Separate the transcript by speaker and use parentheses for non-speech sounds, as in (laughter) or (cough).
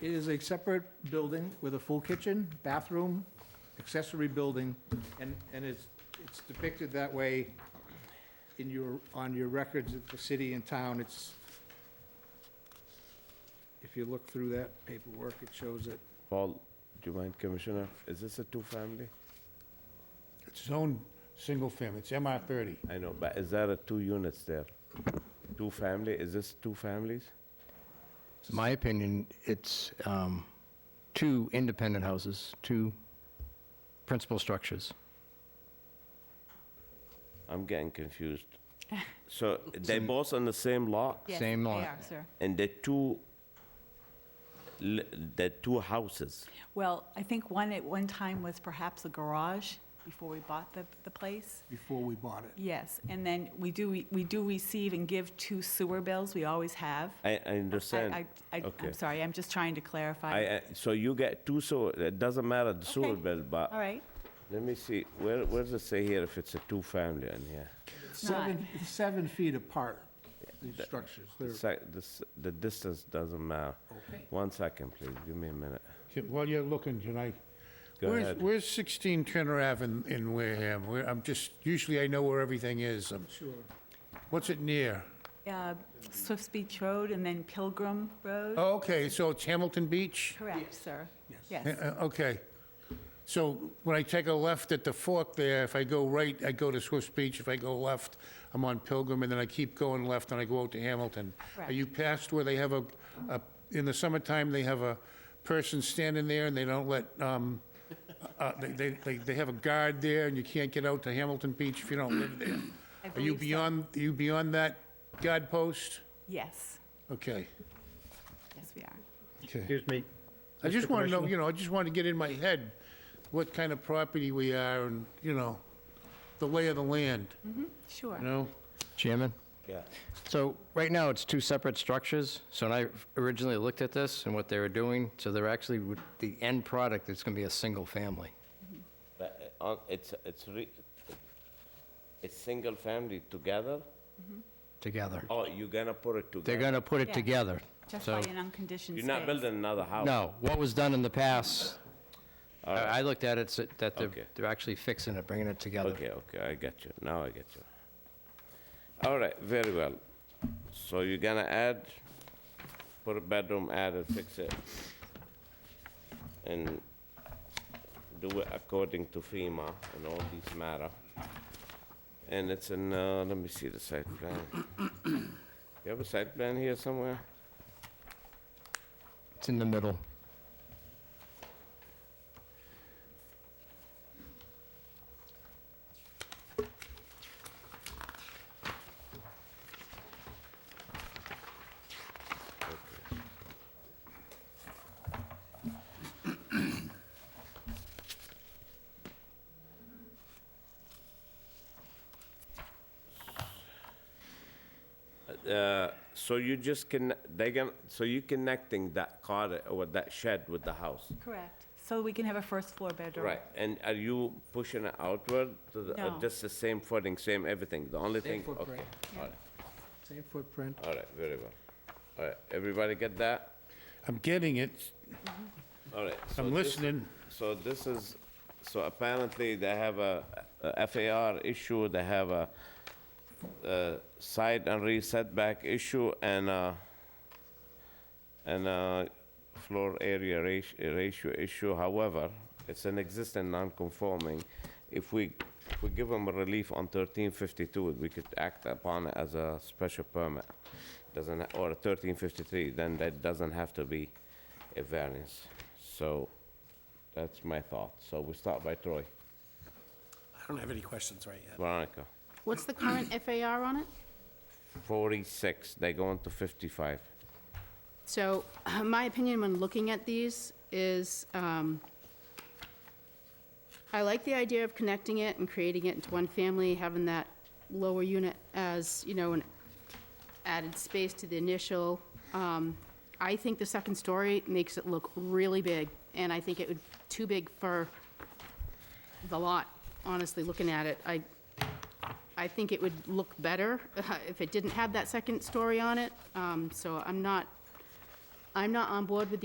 Speaker 1: It is a separate building with a full kitchen, bathroom, accessory building, and, and it's, it's depicted that way in your, on your records of the city and town, it's, if you look through that paperwork, it shows it.
Speaker 2: Paul, do you mind, Commissioner? Is this a two-family?
Speaker 3: It's zoned single family, it's MR thirty.
Speaker 2: I know, but is there a two units there? Two-family, is this two families?
Speaker 4: My opinion, it's um, two independent houses, two principal structures.
Speaker 2: I'm getting
Speaker 5: (laughs)
Speaker 2: confused. So they both on the same lot?
Speaker 4: Yes, Same they lot.
Speaker 5: are,
Speaker 4: are,
Speaker 5: sir.
Speaker 2: And the two, li- the two houses?
Speaker 5: Well, I think one at one time was perhaps a garage before we bought the, the place.
Speaker 1: Before we bought it.
Speaker 5: Yes, and then we do, we do receive and give two sewer bills, we always have.
Speaker 2: I, I
Speaker 5: I-
Speaker 2: understand.
Speaker 5: I- I,
Speaker 2: Okay.
Speaker 5: I'm sorry, I'm just trying to clarify.
Speaker 2: I, I- so you get two sewer, it doesn't matter the sewer
Speaker 5: Okay.
Speaker 2: bill,
Speaker 5: All
Speaker 2: but
Speaker 5: right,
Speaker 2: let me see, where, where does it say here if it's a two-family in here?
Speaker 1: Seven, it's seven feet apart, these structures.
Speaker 2: The
Speaker 1: They're-
Speaker 2: sec- The, s- the distance doesn't matter. One second, please, give me a minute.
Speaker 3: While you're looking tonight,
Speaker 2: Go
Speaker 3: where's-
Speaker 2: ahead.
Speaker 3: Where's sixteen Turner Ave in, in Wareham? Where, I'm just, usually I know where everything is. Um,
Speaker 1: Sure.
Speaker 3: What's it near?
Speaker 5: Uh, Swifts Beach Road and then Pilgrim Road?
Speaker 3: Oh, okay, so it's Hamilton Beach?
Speaker 5: Correct, sir.
Speaker 3: Uh,
Speaker 5: Yes,
Speaker 3: uh, Okay. So when I take a left at the fork there, if I go right, I go to Swift's Beach. If I go left, I'm on Pilgrim, and then I keep going left and I go out to Hamilton. Are
Speaker 5: Correct.
Speaker 3: you past where they have a, a- in the summertime, they have a person standing there and they don't let, um, uh, they- they, they, they have a guard there and you can't get out to Hamilton Beach if you don't live there?
Speaker 5: I
Speaker 3: Are you
Speaker 5: believe so.
Speaker 3: beyond, are you beyond that guard post?
Speaker 5: yes,
Speaker 3: Okay,
Speaker 5: yes, we are.
Speaker 3: okay.
Speaker 6: Excuse me.
Speaker 3: I just
Speaker 6: Mr.
Speaker 3: want to know,
Speaker 6: Commissioner?
Speaker 3: you know, I just want to get in my head what kind of property we are and, you know, the lay of the land,
Speaker 5: Sure.
Speaker 3: you know?
Speaker 4: Chairman?
Speaker 2: Yeah.
Speaker 4: So right now, it's two separate structures. So when I originally looked at this and what they were doing, so they're actually, with the end product is going to be a single family.
Speaker 2: But uh, on- it's, it's, re- it's single family together?
Speaker 4: together.
Speaker 2: Oh, you're gonna put it together?
Speaker 4: They're going to put it
Speaker 5: Yeah.
Speaker 4: together.
Speaker 5: Just
Speaker 4: So,
Speaker 5: by an unconditioned
Speaker 2: You're not
Speaker 5: space.
Speaker 2: building another house?
Speaker 4: no, what was done in the past, I I looked at it, so- that they're,
Speaker 2: Oh. Okay.
Speaker 4: they're actually fixing it, bringing it together.
Speaker 2: Okay, okay, I get you, now I get you. All right, very well. So you're gonna add, put a bedroom, add and fix it. And do it according to FEMA and all these matter. And it's in, uh, let me see the site plan. You have a site plan here somewhere?
Speaker 4: It's in the middle.
Speaker 2: Uh, So you just can, they gonna, so you connecting that car or that shed with the house?
Speaker 5: Correct, so we can have a first floor bedroom.
Speaker 2: Right, and are you pushing it outward to the, or
Speaker 5: No.
Speaker 2: just the same footing, same everything? The only
Speaker 1: Same
Speaker 2: thing, okay,
Speaker 1: footprint,
Speaker 2: all right,
Speaker 1: same footprint.
Speaker 2: all right, very well. All right, everybody get that?
Speaker 3: I'm getting it,
Speaker 2: All right. so
Speaker 3: I'm
Speaker 2: this-
Speaker 3: listening.
Speaker 2: So this is, so apparently they have a a FAR issue, they have a uh, side and rear setback issue and a, and a floor area rati- ratio issue. However, it's an existing non-conforming. If we, if we give them a relief on 1352, we could act upon it as a special permit. Doesn't, ha- or 1353, then that doesn't have to be a variance. So that's my thought. So we start by Troy.
Speaker 7: I don't have any questions right yet.
Speaker 2: Veronica,
Speaker 8: What's the current FAR on it?
Speaker 2: 46, they go into 55.
Speaker 8: So (clears throat) my opinion when looking at these is, um, I like the idea of connecting it and creating it into one family, having that lower unit as, you know, an added space to the initial. Um, I think the second story makes it look really big, and I think it would, too big for the lot, honestly, looking at it. I, I think it would look better (laughs) if it didn't have that second story on it, Um, so I'm not, I'm not on board with the